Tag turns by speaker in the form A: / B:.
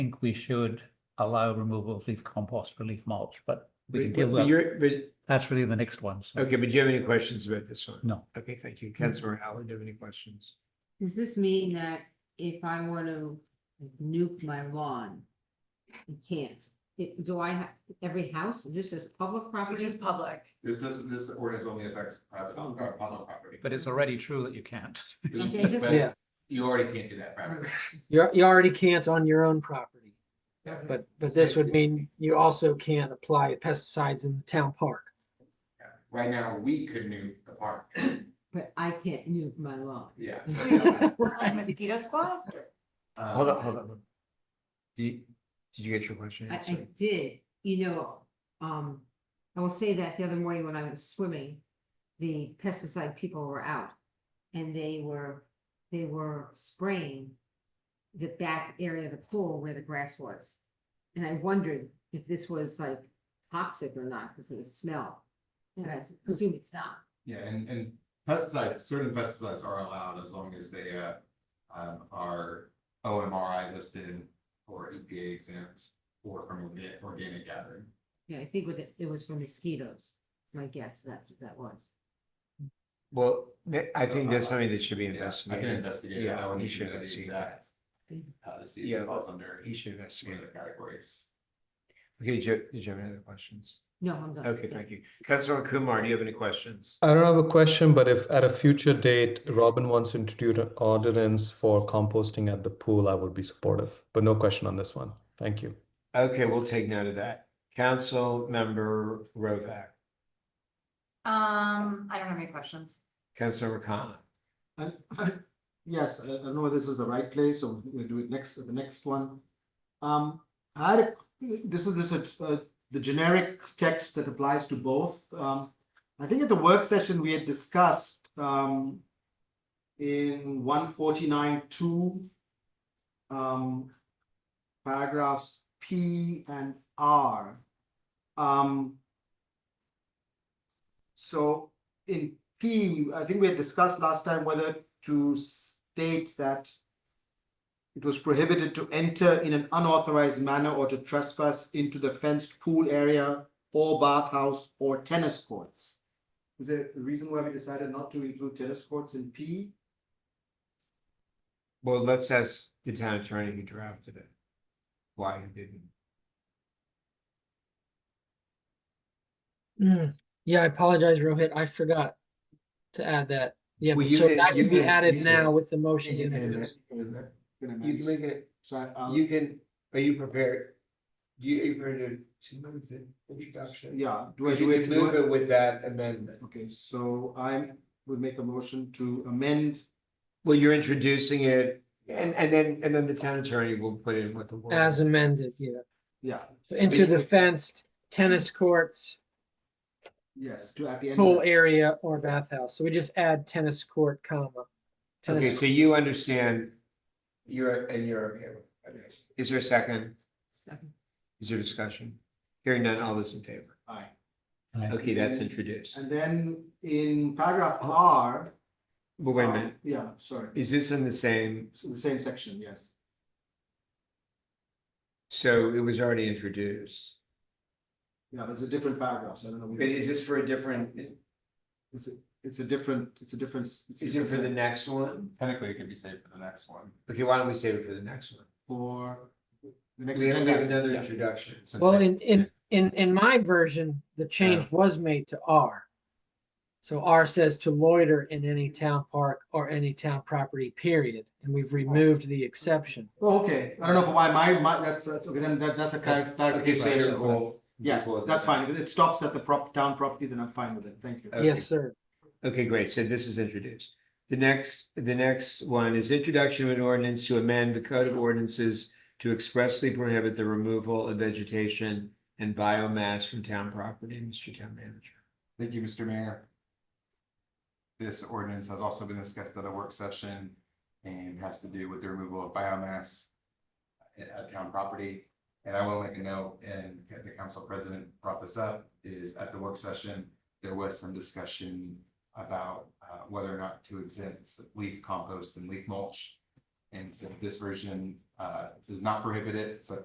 A: think we should allow removal of leaf compost for leaf mulch, but we can
B: But
A: deal
B: but
A: with,
B: you're, but,
A: that's really the next one. so-
B: okay, but do you have any questions about this one?
A: No.
B: Okay, thank you. Councilor Howard, do you have any questions?
C: Does this mean that if I want to like, nuke my lawn? I can't. It- Do I have, every house, is this just public
D: Which
C: property?
D: is public.
E: This doesn't, this ordinance only affects private, uh, public property.
A: But it's already true that you can't.
C: Okay, just-
E: But
F: Yeah.
E: You already can't do that privately.
F: You're, you already can't on your own property, but, but this would mean you also can't apply pesticides in the town park.
E: Right now, we could nuke the park,
C: But I can't nuke my lawn.
E: yeah. Um,
D: Like mosquito squad?
B: Hold on, hold on. Do you, did you get your question
C: I, I
B: answered?
C: did, you know, um, I will say that the other morning when I was swimming, the pesticide people were out. And they were, they were spraying the back area of the pool where the grass was. And I wondered if this was like toxic or not because of the smell. And I assume it's not.
E: Yeah, and, and pesticides, certain pesticides are allowed as long as they, uh, um, are OMRI listed or EPA exempt or from orga- organic gathering.
C: Yeah, I think with it, it was for mosquitoes. My guess, that's what that was.
B: Well, th- I think that's something that should be
E: Uh, Yeah, I can
B: investigated.
E: investigate.
B: Yeah,
E: I want
B: he
E: to
B: should
E: do the
B: investigate
E: exact, uh, to see if
B: Yeah.
E: it falls under
B: He should
E: some of
B: investigate
E: the
B: it.
E: categories.
B: Okay, did you, did you have any other questions?
C: No, I'm done.
B: Okay, thank you. Councilor Kumar, do you have any questions?
G: I don't have a question, but if at a future date Robin wants to introduce an ordinance for composting at the pool, I would be supportive. But no question on this one. Thank you.
B: Okay, we'll take note of that. Council Member Rovak,
D: Um, I don't have any questions.
B: Councilor Khanna.
H: And yes, I I don't know if this is the right place, so we'll do it next, the next one. Um, I had, a- this is, this is, uh, the generic text that applies to both. Um, I think at the work session, we had discussed, um, in one forty-nine two, um, paragraphs P and R. Um, so in P, I think we had discussed last time whether to state that it was prohibited to enter in an unauthorized manner or to trespass into the fenced pool area or bathhouse or tennis courts. Is there a reason why we decided not to include tennis courts in P?
B: Well, let's ask the town attorney who drafted it. Why he didn't.
F: Hmm, yeah, I apologize, Rohit, I forgot to add that. Yeah,
B: Well, you
F: so
B: can-
F: that
B: you
F: can be
B: can-
F: added
B: you
F: now
B: can-
F: with the motion
B: You
F: you
B: can
F: introduced.
B: make it,
H: So I, I'll-
B: you can, are you prepared? Do you, are you prepared to move the introduction?
H: yeah, do I
B: Because you
H: do it?
B: would
H: do
B: move
H: I-
B: it with that amendment.
H: Okay, so I would make a motion to amend
B: Well, you're introducing it and, and then, and then the town attorney will put in what the. word-
F: As amended, yeah.
H: Yeah,
F: So Into the fenced tennis courts,
H: yes, to at the end. of
F: pool
H: that.
F: area or bathhouse. So we just add tennis court comma.
B: Okay,
F: Tennis,
B: so you understand, you're, and you're, okay with- okay. is there a second?
C: Second.
B: Is there discussion? Hearing none, all those in favor?
H: Aye.
B: Okay, that's introduced.
H: And then in paragraph R.
B: But Oh, wait a
H: um,
B: minute,
H: Yeah, sorry,
B: is this in the same,
H: it's the same section, yes.
B: so it was already introduced?
H: Yeah, there's a different paragraph, so I don't know.
B: But is this for a different,
H: It's, a- it's a different, it's a different. s- it's a
B: is it for the
H: different-
B: next one?
E: Technically, it could be saved for the next one.
B: Okay, why don't we save it for the next one?
H: For. the next
B: We have we have
H: agenda.
B: another
H: Yeah.
B: introduction.
E: since
F: well,
E: they-
F: in, in, in, in my version, the change was made to R. So R says to loiter in any town park or any town property, period. And we've removed the exception.
H: Oh, okay, I don't know for why my, my, that's, uh, okay, then that, that's a clar-
B: Okay, so
H: clarification.
B: you're
H: for that.
B: cool.
H: Yes,
B: Cool.
H: that's fine, if it stops at the prop, town property, then I'm fine with it, thank you.
B: Okay.
F: Yes, sir.
B: Okay, great. So this is introduced. The next, the next one is introduction of an ordinance to amend the code of ordinances to expressly prohibit the removal of vegetation and biomass from town property, Mr. Town Manager.
E: Thank you, Mr. Mayor. This ordinance has also been discussed at a work session and has to do with the removal of biomass at, at town property. And I will make a note, and the council president brought this up, is at the work session, there was some discussion about uh, whether or not to exempt leaf compost and leaf mulch. And so this version uh, uh, does not prohibit it, but